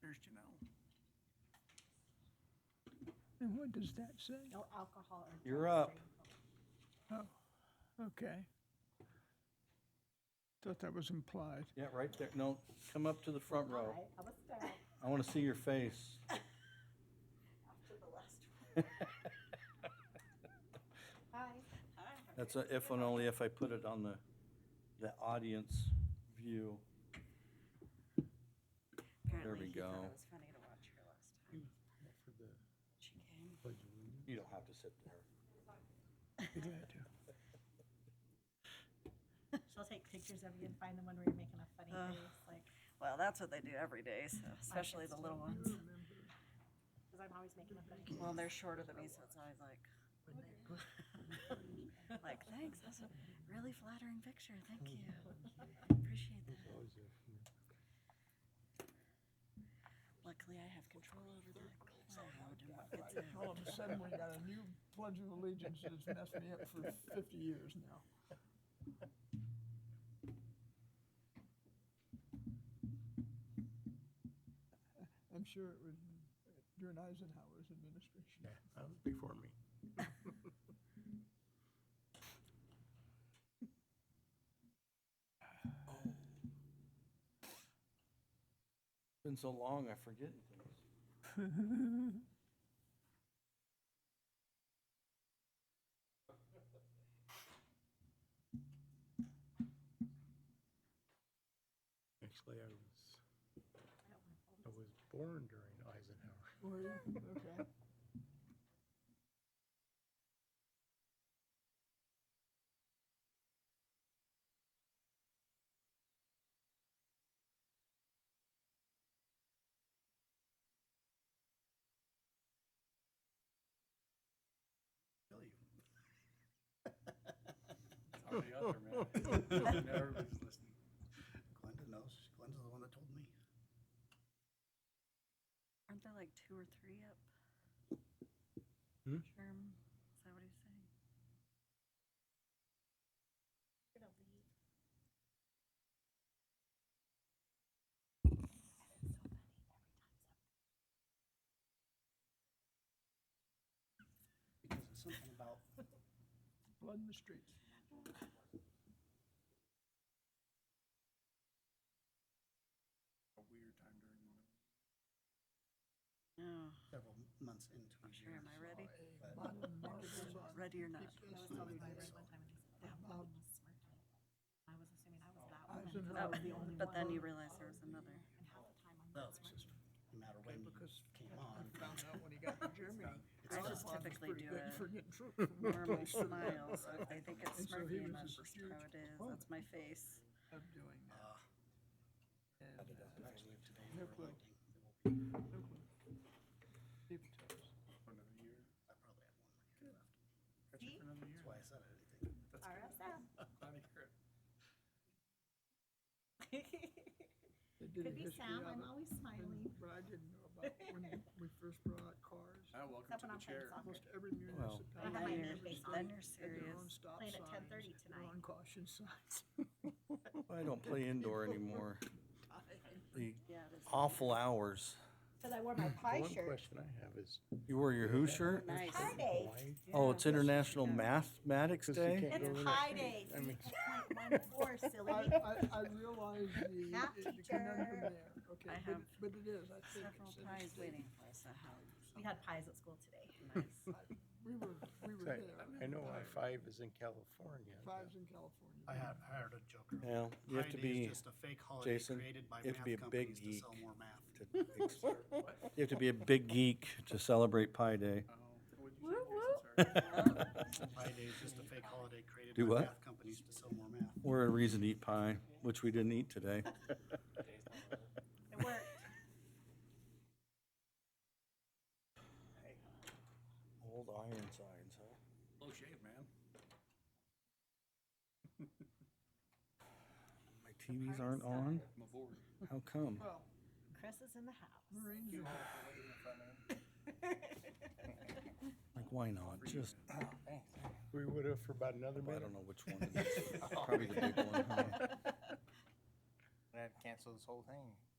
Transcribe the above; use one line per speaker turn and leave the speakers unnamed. Christian ale.
And what does that say?
No alcohol or.
You're
drugs
up.
available.
Oh, okay. Thought that was implied.
Yeah, right there. No, come up to the front row.
Alright, I was down
I want to see your face.
after the last one. Hi. Hi.
That's a if and only if I put it on the, the audience view.
Apparently,
we
he thought
go.
it was funny to watch her last time.
For the
She came.
pledge of allegiance.
You don't have to sit there.
Be glad to.
She'll take pictures of you and find the one where you're making a funny
Ugh.
face, like,
Well, that's what they do every day, so especially the little ones.
because I'm always making a funny face.
Well, they're shorter than me, so it's always like, like, thanks, that's a really flattering picture. Thank you. Appreciate that.
It's always there.
Luckily, I have control over the cloud and what gets
All of
out.
a sudden, we got a new Pledge of Allegiance that's messed me up for 50 years now. I'm sure it was during Eisenhower's administration.
That was before me.
Been so long, I forget things.
Actually, I was, I was born during Eisenhower.
Were you? Okay.
Kill you.
Already out there, man.
Everybody's listening. Glenda knows. Glenda's the one that told me.
Aren't there like two or three up?
Hmm?
Sherm, is that what he's saying?
You're gonna leave.
That is so funny. Every time something
Because it's something about
Blood in the streets.
A weird time during the middle.
No,
several months into a
I'm sure.
year.
Am I ready?
But
Bottle of marbles on
Ready or not?
That was something I read one time, and they said, that woman was smirking. I was assuming I was that woman, because I
Eisenhower.
was the only one.
But then you realize there was another.
And half the time I'm not
that was
smirking.
just no matter when you
because
came on.
Found out when he got to Germany.
I just typically do
Pretty good for
a
getting troops from one
normal
place to another.
smile, so if they think it's
And so
smirky
he was
enough,
just
that's
huge
how it is.
proponent.
That's my face.
Of doing that.
Uh,
And, uh,
Actually, today
No
we're
clue.
electing. It will be-
no clue. Deep toes.
For another year.
I probably have one more year left.
Got you for another year.
That's why I said anything.
That's good.
RSM.
Glad to hear it.
They did a
Could be
history
Sam,
of
I'm
it,
always
and-
smiling.
But I didn't know about when we first brought out cars.
Ah, welcome to
Except when
the
I'm playing
chair.
soccer.
Almost every municipality.
I have my
Then
man
you're-
face on.
Then you're
Had their own
serious.
stop
Playing at
signs,
10:30
had their own
tonight.
caution signs.
I don't play indoor anymore. The
Yeah, it is.
awful hours.
Because I wore my pie
One
shirt.
question I have is.
You wear your who shirt?
Nice.
Hi,
Why?
Dave.
Oh, it's International Mathematics
Because you
Day?
can't go
It's
in
Pi
there.
Day.
I mean,
Four
I,
silly.
I, I realize the,
Math
the
teacher.
conundrum there, okay,
I
but,
have
but it is, I think.
Several
it's-
pies waiting for us at home.
We had pies at school today.
Nice.
We were, we were there.
I I know I five is in California. but-
Fives in California.
I had hired a joker.
Yeah, you have to
Friday is
be,
Just a fake holiday
Jason,
created by
you have to
math
be a big
companies to sell
geek.
more math.
you have to be a big geek to celebrate Pi Day.
Oh, what'd you say, Jason? Sorry.
Pi Day is just a fake holiday created
Do
by
what?
math companies to sell more math.
Or a reason to eat pie, which we didn't eat today.
It worked.
Old iron signs, huh?
Low shave, man.
My TVs aren't on?
I'm aboard.
How come?
Well,
Chris is in the house.
Marines are
Like, why not? Just, I
We would have for about another minute.
don't know which one it is. Probably the big one, huh?
I'd cancel this whole thing.